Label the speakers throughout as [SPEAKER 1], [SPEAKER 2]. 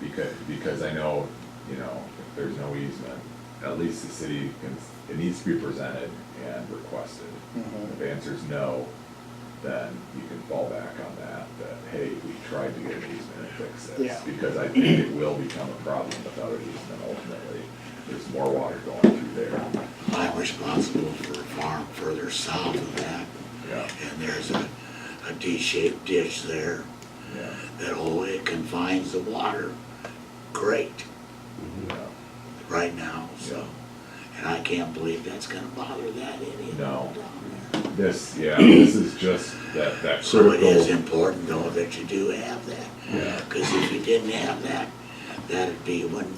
[SPEAKER 1] because, because I know, you know, if there's no easement, at least the city can, it needs to be presented and requested.
[SPEAKER 2] Mhm.
[SPEAKER 1] If the answer's no, then you can fall back on that, that, hey, we tried to get an easement and fix this.
[SPEAKER 2] Yeah.
[SPEAKER 1] Because I think it will become a problem without an easement ultimately, there's more water going through there.
[SPEAKER 3] I'm responsible for a farm further south of that.
[SPEAKER 1] Yeah.
[SPEAKER 3] And there's a, a D-shaped ditch there
[SPEAKER 1] Yeah,
[SPEAKER 3] that, oh, it confines the water great
[SPEAKER 1] yeah.
[SPEAKER 3] right now, so. And I can't believe that's gonna bother that idiot
[SPEAKER 1] No.
[SPEAKER 3] down there.
[SPEAKER 1] This, yeah, this is just that, that critical.
[SPEAKER 3] So it is important though that you do have that.
[SPEAKER 1] Yeah.
[SPEAKER 3] Cause if you didn't have that, that'd be when,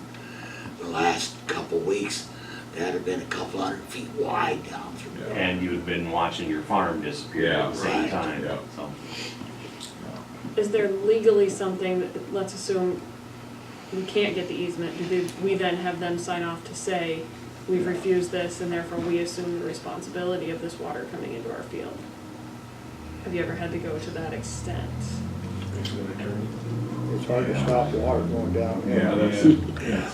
[SPEAKER 3] the last couple weeks, that'd have been a couple hundred feet wide down through there.
[SPEAKER 1] Yeah.
[SPEAKER 4] And you've been watching your farm disappear
[SPEAKER 1] Yeah,
[SPEAKER 4] at the same
[SPEAKER 3] right,
[SPEAKER 4] time,
[SPEAKER 1] yeah.
[SPEAKER 4] so.
[SPEAKER 5] Is there legally something that, let's assume we can't get the easement, do they- we then have them sign off to say, we've refused this and therefore we assume the responsibility of this water coming into our field? Have you ever had to go to that extent?
[SPEAKER 2] It's hard to stop water going down.
[SPEAKER 1] Yeah, that's,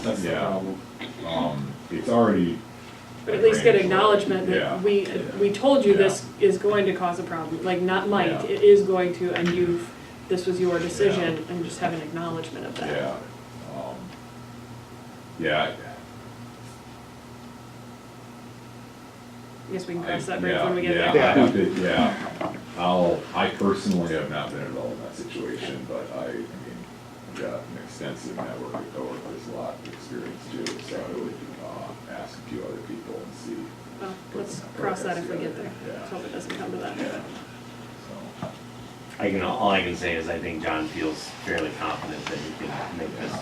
[SPEAKER 1] that's the problem. Um, it's already.
[SPEAKER 5] But at least get
[SPEAKER 1] arranged.
[SPEAKER 5] acknowledgement
[SPEAKER 1] Yeah.
[SPEAKER 5] that we, we told you this is going to cause a problem, like not might, it is going to, and you've, this was your decision, and just have an acknowledgement of that.
[SPEAKER 1] Yeah, um, yeah,
[SPEAKER 5] I guess we can cross
[SPEAKER 1] I-
[SPEAKER 5] that bridge
[SPEAKER 1] yeah,
[SPEAKER 5] when we get
[SPEAKER 1] yeah,
[SPEAKER 5] there.
[SPEAKER 1] I have to- Yeah, I'll, I personally have not been involved in that situation, but I, I mean, I've got an extensive network of coworkers, a lot of experience too, so I would, uh, ask a few other people and see.
[SPEAKER 5] Well, let's cross that if we get there. Let's hope it doesn't come to that.
[SPEAKER 1] Yeah, so,
[SPEAKER 4] I can, all I can say is I think John feels fairly confident that he can make this.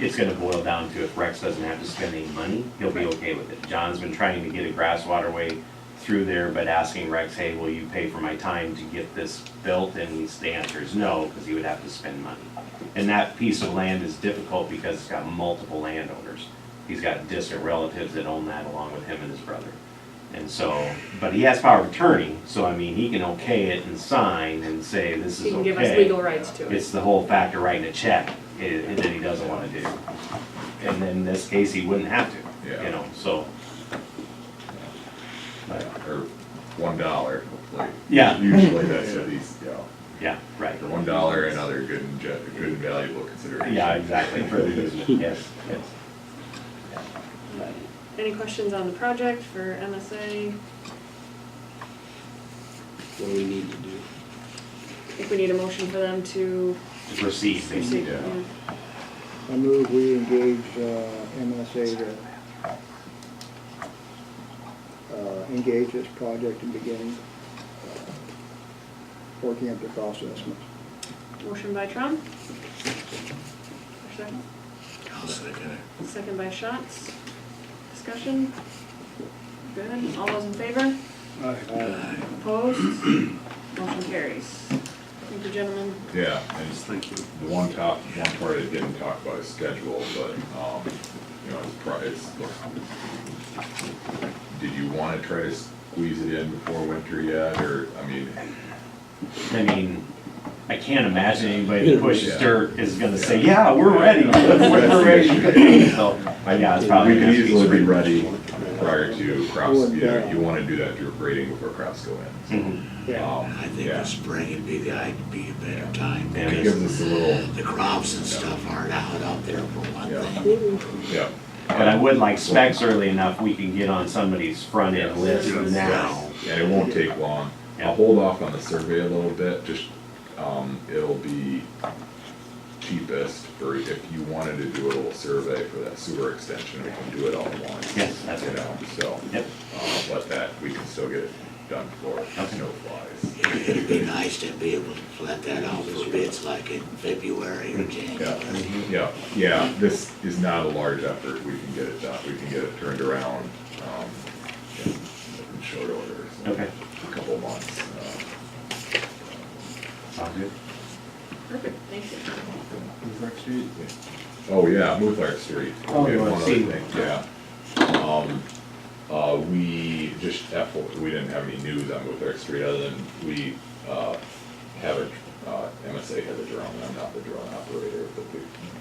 [SPEAKER 4] It's gonna boil down to if Rex doesn't have to spend any money, he'll be okay with it. John's been trying to get a grass waterway through there, but asking Rex, hey, will you pay for my time to get this built? And he's- the answer is no, because he would have to spend money. And that piece of land is difficult because it's got multiple landowners. He's got distant relatives that own that along with him and his brother. And so, but he has power of attorney, so I mean, he can okay it and sign and say, this is okay.
[SPEAKER 5] He can give us legal rights to it.
[SPEAKER 4] It's the whole factor writing a check i- i- that he doesn't want to do. And in this case, he wouldn't have to,
[SPEAKER 1] Yeah.
[SPEAKER 4] you know, so. But,
[SPEAKER 1] Or one dollar, like.
[SPEAKER 4] Yeah.
[SPEAKER 1] Usually that's what these, yeah.
[SPEAKER 4] Yeah, right.
[SPEAKER 1] For one dollar and other good and, ju- good and valuable consideration.
[SPEAKER 4] Yeah, exactly, for the easement, yes, yes.
[SPEAKER 5] Any questions on the project for MSA?
[SPEAKER 6] what do we need to do?
[SPEAKER 5] I think we need a motion for them to
[SPEAKER 4] To Proceed,
[SPEAKER 5] proceed.
[SPEAKER 4] basically.
[SPEAKER 1] Yeah.
[SPEAKER 2] I move we engage uh, MSA to uh, engage this project and begin uh, working up the cost estimates.
[SPEAKER 5] Motion by Trump. Second.
[SPEAKER 3] I'll second it.
[SPEAKER 5] Second by Shots. Discussion? Good. All those in favor?
[SPEAKER 2] Uh,
[SPEAKER 5] Opposed? Motion carries. Thank you, gentlemen.
[SPEAKER 1] Yeah, and just
[SPEAKER 6] Thank you.
[SPEAKER 1] the one top, one part I didn't talk about is schedule, but, um, you know, it's pri- it's Did you wanna try to squeeze it in before winter yet, or, I mean,
[SPEAKER 4] I mean, I can't imagine anybody that pushes
[SPEAKER 1] Yeah.
[SPEAKER 4] dirt is gonna say,
[SPEAKER 1] Yeah.
[SPEAKER 4] yeah, we're ready, we're ready. So, but yeah, it's probably.
[SPEAKER 1] we could
[SPEAKER 4] gonna be
[SPEAKER 1] easily be
[SPEAKER 4] spring.
[SPEAKER 1] ready prior to crops, you know, you wanna do that drip grading before crops go in.
[SPEAKER 4] Mhm.
[SPEAKER 2] Yeah,
[SPEAKER 1] Um,
[SPEAKER 3] I think
[SPEAKER 1] yeah.
[SPEAKER 3] the spring would be the, I'd be a better time
[SPEAKER 4] Yeah.
[SPEAKER 1] It
[SPEAKER 3] because
[SPEAKER 1] gives us a little,
[SPEAKER 3] the crops and stuff aren't out out there for one
[SPEAKER 1] Yeah.
[SPEAKER 3] thing.
[SPEAKER 1] yeah,
[SPEAKER 4] But I would like specs early enough, we can get on somebody's front end list
[SPEAKER 1] Yes.
[SPEAKER 4] now.
[SPEAKER 1] and it won't take long. I'll
[SPEAKER 4] Yeah.
[SPEAKER 1] hold off on the survey a little bit, just, um, it'll be cheapest for if you wanted to do a little survey for that sewer extension, we can do it all at once.
[SPEAKER 4] Yes, that's
[SPEAKER 1] You
[SPEAKER 4] right.
[SPEAKER 1] know, so,
[SPEAKER 4] Yep.
[SPEAKER 1] uh, but that, we can still get it done before snow flies.
[SPEAKER 3] It- It'd be nice to be able to let that out for bids like in February or January.
[SPEAKER 1] Yeah, yeah, yeah, this is not a large effort, we can get it done, we can get it turned around, um, in in short order. so
[SPEAKER 4] Okay.
[SPEAKER 1] A Couple months, uh,
[SPEAKER 4] Sound good?
[SPEAKER 5] Perfect. Thank you.
[SPEAKER 1] uh, Oh, yeah, Mouffard Street.
[SPEAKER 4] Oh,
[SPEAKER 1] We have
[SPEAKER 4] you
[SPEAKER 1] one
[SPEAKER 4] wanna
[SPEAKER 1] other
[SPEAKER 4] see.
[SPEAKER 1] thing, Yeah. Um, uh, we just, F- we didn't have any news on Mouffard Street other than we, uh, have a, uh, MSA has a drone, I'm not the drone operator, but we